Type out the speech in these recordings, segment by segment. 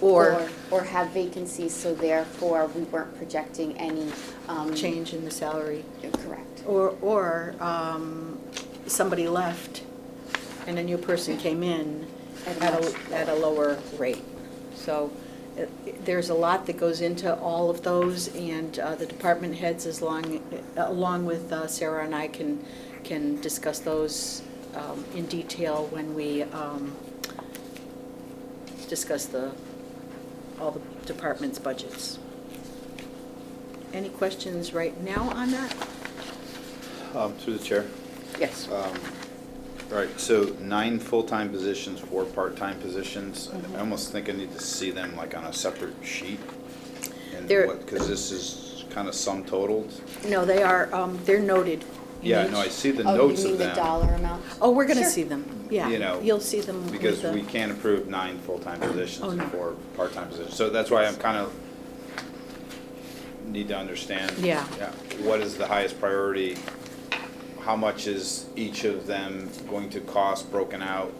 or, Or have vacancies, so therefore we weren't projecting any. um, change in the salary. Correct. Or, or um, somebody left and a new person came in At a at much a, at a lower rate. So uh, there's a lot that goes into all of those, and uh, the department heads, as long, along with uh, Sarah and I, can, can discuss those um, in detail when we um, discuss the, all the department's budgets. Any questions right now on that? Um, Through the chair. Yes. Um, All right, so nine full-time positions, four part-time positions. Mm-hmm. I almost think I need to see them like on a separate sheet. And They're- what, because this is kind of sum totaled. No, they are, um, they're noted. Yeah, no, I see the Oh, notes you mean of the them. dollar amount? Oh, we're going to Sure. see them, yeah. You know, You'll see them. with Because the- we can't approve nine full-time Oh, positions no. and four part-time positions. So that's why I'm kind of, need to understand. Yeah. What is the highest priority? How much is each of them going to cost broken out?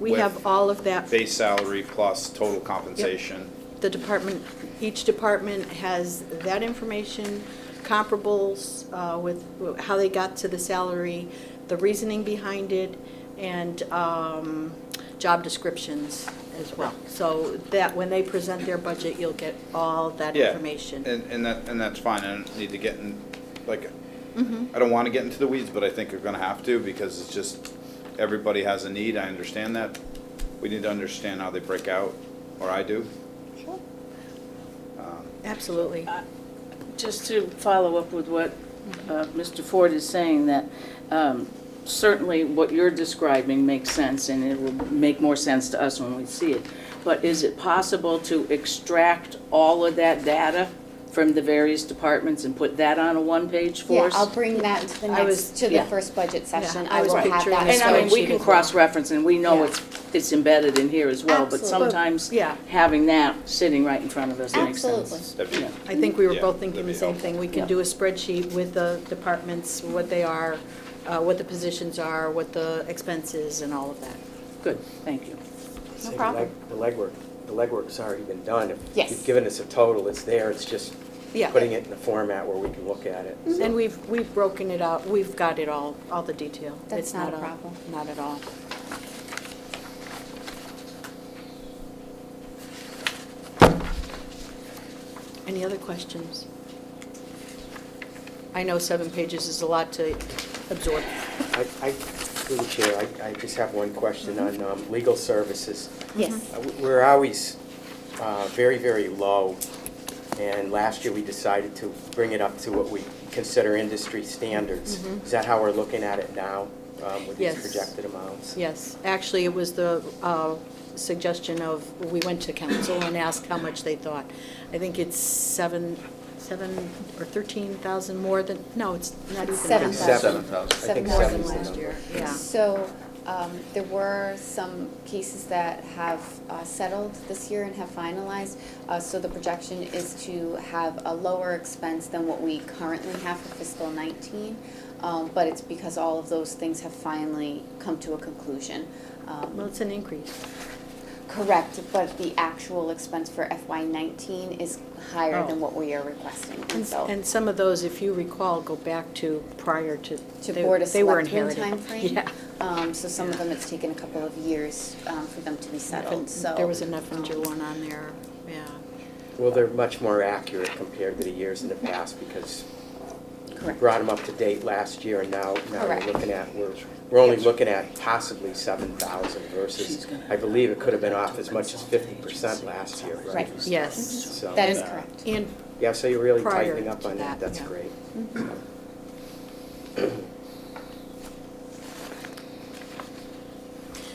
We with- have all of that. base salary plus total compensation. The department, each department has that information, comparables uh, with how they got to the salary, the reasoning behind it, and um, job descriptions as well. So that, when they present their budget, you'll get all that Yeah, information. And, and that, and that's fine, I don't need to get in, like, Mm-hmm. I don't wanna get into the weeds, but I think we're gonna have to, because it's just, everybody has a need, I understand that. We need to understand how they break out, or I do. Um, Sure. Absolutely. Just to follow up with what uh, Mr. Ford is saying, that um, certainly what you're describing makes sense, and it will make more sense to us when we see it. But is it possible to extract all of that data from the various departments and put that on a one-page for Yeah, us? I'll bring that to the I was- next, to the yeah. first budget session. Yeah, I I was will have picturing that. a And I mean, we spreadsheet can as well. cross-reference, and we know Yeah. it's, it's embedded in here as well, but Absolutely. sometimes Yeah. having that sitting right in front of us makes sense. Absolutely. That'd be- Yeah. I think we were Yeah, both thinking that'd the be same thing. We can Yeah. do a spreadsheet with the departments, what they are, uh, what the positions are, what the expenses and all of that. Good, thank you. No Say the problem. leg- The legwork, the legwork's already been done. If Yes. You've given us a total, it's there, it's just Yeah. putting it in a format where we can look at it. Mm-hmm. And we've, we've broken it out, we've got it all, all the detail. That's It's not a problem. Not at all. Any other questions? I know seven pages is a lot to absorb. I, I, through the chair, I, I just have one question on um, legal services. Yes. Uh, we- We're always uh, very, very low, and last year we decided to bring it up to what we consider industry standards. Mm-hmm. Is that how we're looking at it now, um, with these Yes. projected amounts? Yes, actually, it was the uh, suggestion of, we went to council and asked how much they thought. I think it's seven, seven or 13,000 more than, no, it's not even. Seven half. thousand. Seven thousand. I Seven think more than seven's the last year. number. Yeah. So um, there were some cases that have uh, settled this year and have finalized. Uh, So the projection is to have a lower expense than what we currently have for fiscal 19. um, But it's because all of those things have finally come to a conclusion. Um, Well, it's an increase. Correct, but the actual expense for FY nineteen is higher than Oh. what we are requesting, and And so. and some of those, if you recall, go back to prior to. To they- Board of they were Selectmen inherited. timeframe. Yeah. Um, so some of them, it's taken a couple of years, um, for them to be settled, so. There was a Neffinger um, one on there, yeah. Well, they're much more accurate compared to the years in the past, because We Correct. brought them up to date last year, and now, now Correct. we're looking at, we're, we're only looking at possibly seven thousand She's versus, gonna- I believe it could have been off as much as fifty percent last year, right? Right. Yes. So, That is uh, correct. And Yeah, so you're really Prior tightening up to on that, that, that's yeah. great. Mm-hmm.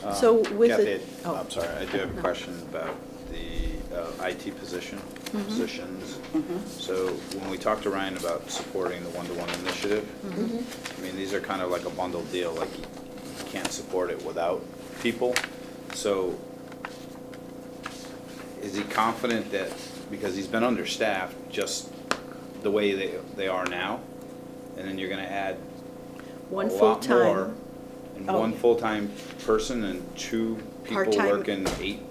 Um, So with Kathy, it- I- oh. I'm sorry, I do have a No. question about the uh, IT position, Mm-hmm. positions. So when we talked to Ryan about supporting the one-to-one initiative, Mm-hmm. I mean, these are kind of like a bundle deal, like you you can't support it without people. So is he confident that, because he's been understaffed, just the way they, they are now? And then you're gonna add one a lot more, full-time. And Oh. one full-time person and two people Part-time. working eight